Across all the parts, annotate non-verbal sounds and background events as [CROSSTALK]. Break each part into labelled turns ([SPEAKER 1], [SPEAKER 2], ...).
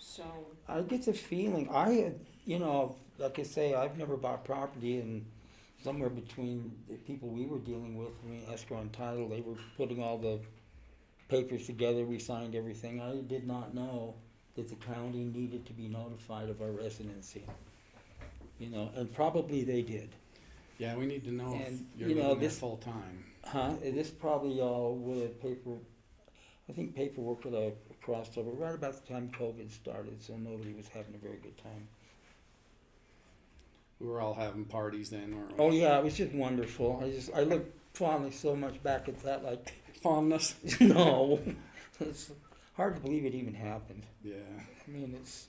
[SPEAKER 1] so,
[SPEAKER 2] I get the feeling, I, you know, like I say, I've never bought property and somewhere between the people we were dealing with, I mean, escrow and title, they were putting all the papers together, we signed everything. I did not know that the county needed to be notified of our residency. You know, and probably they did.
[SPEAKER 3] Yeah, we need to know if
[SPEAKER 2] And,
[SPEAKER 3] you're
[SPEAKER 2] you know,
[SPEAKER 3] living there
[SPEAKER 2] this-
[SPEAKER 3] full-time.
[SPEAKER 2] Huh, and Uh, this probably all would have paper, I think paperwork would have crossed over right about the time COVID started, so nobody was having a very good time.
[SPEAKER 3] We were all having parties then, weren't we?
[SPEAKER 2] Oh yeah, it was just wonderful. I just I look fondly so much back at that. Like [LAUGHS]
[SPEAKER 3] Fondness.
[SPEAKER 2] no, it's hard to believe it even happened.
[SPEAKER 3] [LAUGHS] Yeah,
[SPEAKER 2] I mean, it's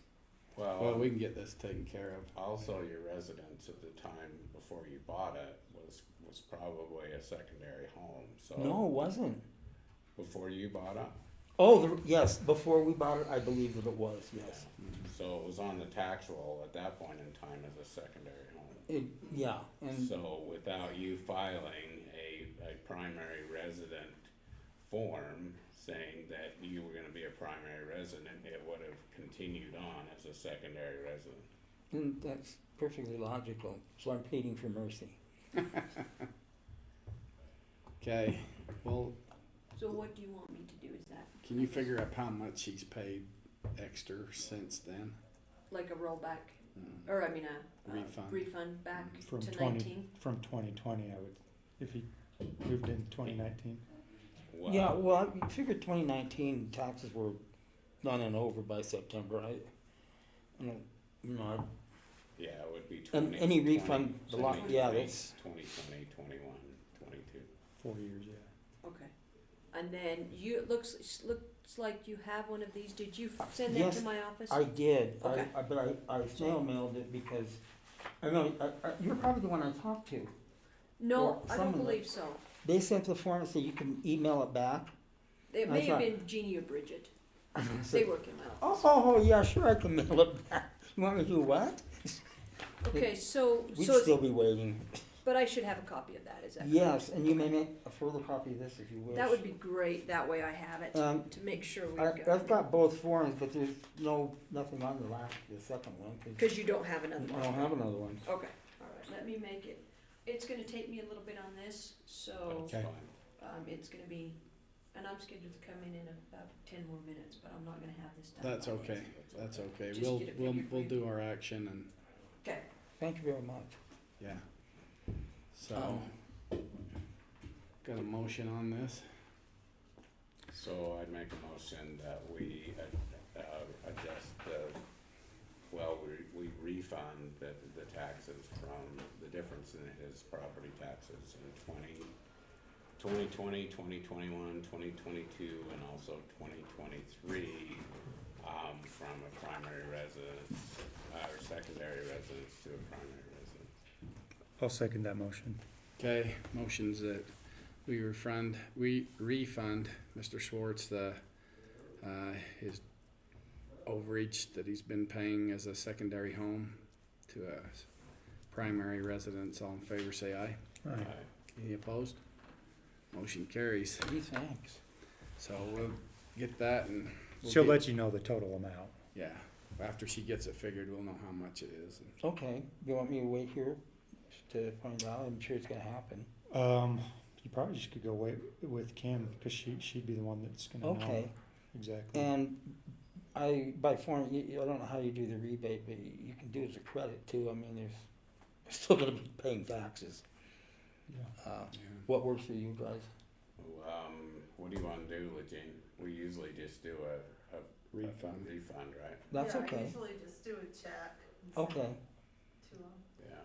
[SPEAKER 3] well,
[SPEAKER 4] Well,
[SPEAKER 3] we can get this taken care of.
[SPEAKER 4] also your residence at the time before you bought it was, was probably a secondary home, so.
[SPEAKER 2] no, it wasn't.
[SPEAKER 4] Before you bought it,
[SPEAKER 2] Oh the, yes, before we bought it, I believe that it was yes.
[SPEAKER 4] so it was on the tax roll at that point in time as a secondary home.
[SPEAKER 2] It, yeah, and
[SPEAKER 4] So without you filing a, a primary resident form saying that you were gonna be a primary resident, it would have continued on as a secondary resident.
[SPEAKER 2] and that's perfectly logical. So I'm pleading for mercy.
[SPEAKER 3] Okay, well,
[SPEAKER 1] so what do you want me to do, is that
[SPEAKER 3] can you figure out how much he's paid extra since then?
[SPEAKER 1] like a rollback, or I mean a, a
[SPEAKER 3] Refund.
[SPEAKER 1] refund back
[SPEAKER 5] From
[SPEAKER 1] to
[SPEAKER 5] twenty,
[SPEAKER 1] nineteen?
[SPEAKER 5] from twenty twenty, I would, if he moved in twenty nineteen.
[SPEAKER 4] Well,
[SPEAKER 2] Yeah, well, I figured 2019 taxes were done and over by September. I, you know, you know, I
[SPEAKER 4] Yeah, it would be
[SPEAKER 2] And
[SPEAKER 4] twenty.
[SPEAKER 2] any refund, the lot- yeah, that's-
[SPEAKER 4] Twenty twenty, twenty-one, twenty-two.
[SPEAKER 5] Four years, yeah.
[SPEAKER 1] Okay, and then you, it looks, looks like you have one of these, did you f- send that
[SPEAKER 2] Yes,
[SPEAKER 1] to my office?
[SPEAKER 2] I did, I,
[SPEAKER 1] Okay.
[SPEAKER 2] I, but I, I snail mailed it because, I know, I, I, you're probably the one I talked to.
[SPEAKER 1] No,
[SPEAKER 2] or
[SPEAKER 1] I
[SPEAKER 2] some
[SPEAKER 1] don't
[SPEAKER 2] of them.
[SPEAKER 1] believe so,
[SPEAKER 2] They sent the form and said you can email it back.
[SPEAKER 1] it
[SPEAKER 2] I
[SPEAKER 1] may have
[SPEAKER 2] thought-
[SPEAKER 1] been Jeannie or Bridget,
[SPEAKER 2] [LAUGHS] I
[SPEAKER 1] they
[SPEAKER 2] said,
[SPEAKER 1] work in my office.
[SPEAKER 2] Oh, oh, oh, yeah, sure, I can [LAUGHS] mail it back. You want me to do what?
[SPEAKER 1] Okay, so,
[SPEAKER 2] We'd
[SPEAKER 1] so,
[SPEAKER 2] still
[SPEAKER 1] it's-
[SPEAKER 2] be waiting.
[SPEAKER 1] but I should have a copy of that, is that correct?
[SPEAKER 2] Yes, and you may make a further copy of this if you wish.
[SPEAKER 1] That would be great, that way I have it,
[SPEAKER 2] Um,
[SPEAKER 1] to make sure we
[SPEAKER 2] I,
[SPEAKER 1] got
[SPEAKER 2] I've
[SPEAKER 1] it,
[SPEAKER 2] got both forms, but there's no, nothing on the last, the second one, cause
[SPEAKER 1] cause you don't have another
[SPEAKER 2] I
[SPEAKER 1] one.
[SPEAKER 2] don't have another one.
[SPEAKER 1] Okay, alright, let me make it, it's gonna take me a little bit on this, so,
[SPEAKER 4] That's
[SPEAKER 3] Okay.
[SPEAKER 4] fine.
[SPEAKER 1] um, it's gonna be, and I'm scheduled to come in in about ten more minutes, but I'm not gonna have this done.
[SPEAKER 3] That's okay, that's okay.
[SPEAKER 1] Just
[SPEAKER 3] We'll,
[SPEAKER 1] get it
[SPEAKER 3] we'll,
[SPEAKER 1] figured for
[SPEAKER 3] we'll
[SPEAKER 1] you.
[SPEAKER 3] do our action and,
[SPEAKER 1] Okay,
[SPEAKER 2] Thank you very much.
[SPEAKER 3] yeah. So,
[SPEAKER 2] Um,
[SPEAKER 3] got a motion on this?
[SPEAKER 4] So I'd make a motion that we, uh, uh, adjust the, well, we, we refund the, the taxes from the difference in his property taxes in twenty, twenty twenty, twenty twenty-one, twenty twenty-two, and also twenty twenty-three, um, from a primary residence, uh, or secondary residence to a primary residence.
[SPEAKER 5] I'll second that motion.
[SPEAKER 3] Okay, motions that we refund, we refund Mr. Schwartz the, uh, his overage that he's been paying as a secondary home to a s- primary residence. All in favor, say aye.
[SPEAKER 5] Right.
[SPEAKER 4] Aye.
[SPEAKER 3] Any opposed? Motion carries.
[SPEAKER 2] Gee, thanks.
[SPEAKER 3] So we'll get that and. we'll
[SPEAKER 5] She'll
[SPEAKER 3] get-
[SPEAKER 5] let you know the total amount.
[SPEAKER 3] Yeah, after she gets it figured, we'll know how much it is.
[SPEAKER 2] Okay, you want me to wait here to find out? I'm sure it's gonna happen.
[SPEAKER 5] Um, you probably just could go wait with Kim, cause she, she'd be the one that's gonna know
[SPEAKER 2] Okay,
[SPEAKER 5] exactly.
[SPEAKER 2] and I, by form, you, you- I don't know how you do the rebate, but you you can do it as a credit too. I mean, there's, we're still gonna be paying taxes.
[SPEAKER 5] Yeah.
[SPEAKER 2] Uh,
[SPEAKER 3] Yeah.
[SPEAKER 2] What works for you guys?
[SPEAKER 4] Um, what do you wanna do, Lejean? We usually just do a, a
[SPEAKER 3] Refund.
[SPEAKER 4] Refund, right,
[SPEAKER 2] That's
[SPEAKER 6] Yeah, I
[SPEAKER 2] okay.
[SPEAKER 6] usually just do a check. and send
[SPEAKER 2] Okay,
[SPEAKER 6] it To 'em.
[SPEAKER 4] yeah.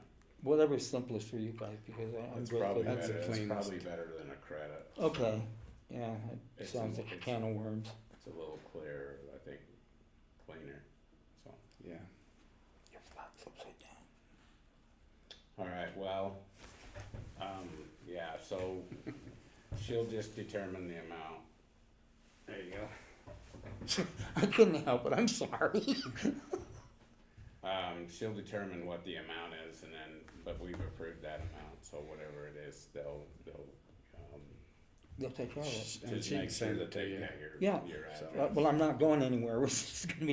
[SPEAKER 2] whatever's simplest for you guys, because I- I'm
[SPEAKER 4] It's
[SPEAKER 2] grateful.
[SPEAKER 4] probably
[SPEAKER 3] That's
[SPEAKER 4] better,
[SPEAKER 3] the
[SPEAKER 4] it's probably
[SPEAKER 3] cleanest.
[SPEAKER 4] better than a credit.
[SPEAKER 2] Okay, yeah, it
[SPEAKER 4] It's
[SPEAKER 2] sounds
[SPEAKER 4] a-
[SPEAKER 2] like a
[SPEAKER 4] it's-
[SPEAKER 2] can of worms.
[SPEAKER 4] It's a little clearer, I think, cleaner, so.
[SPEAKER 3] Yeah.
[SPEAKER 2] Your flat's upside down.
[SPEAKER 4] Alright, well, um, yeah, so
[SPEAKER 3] [LAUGHS]
[SPEAKER 4] she'll just determine the amount.
[SPEAKER 3] There you go.
[SPEAKER 2] [LAUGHS] I couldn't help it, I'm sorry. [LAUGHS]
[SPEAKER 4] Um, she'll determine what the amount is and then, but we've approved that amount, so whatever it is, they'll, they'll, um,
[SPEAKER 2] They'll take care of it.
[SPEAKER 3] And
[SPEAKER 4] just
[SPEAKER 3] she can
[SPEAKER 4] make sure
[SPEAKER 3] send
[SPEAKER 4] that
[SPEAKER 3] it to
[SPEAKER 4] they
[SPEAKER 3] you.
[SPEAKER 4] get your,
[SPEAKER 2] Yeah.
[SPEAKER 4] your address.
[SPEAKER 3] So-
[SPEAKER 2] Uh, Well, I'm not going anywhere, [LAUGHS] it's gonna be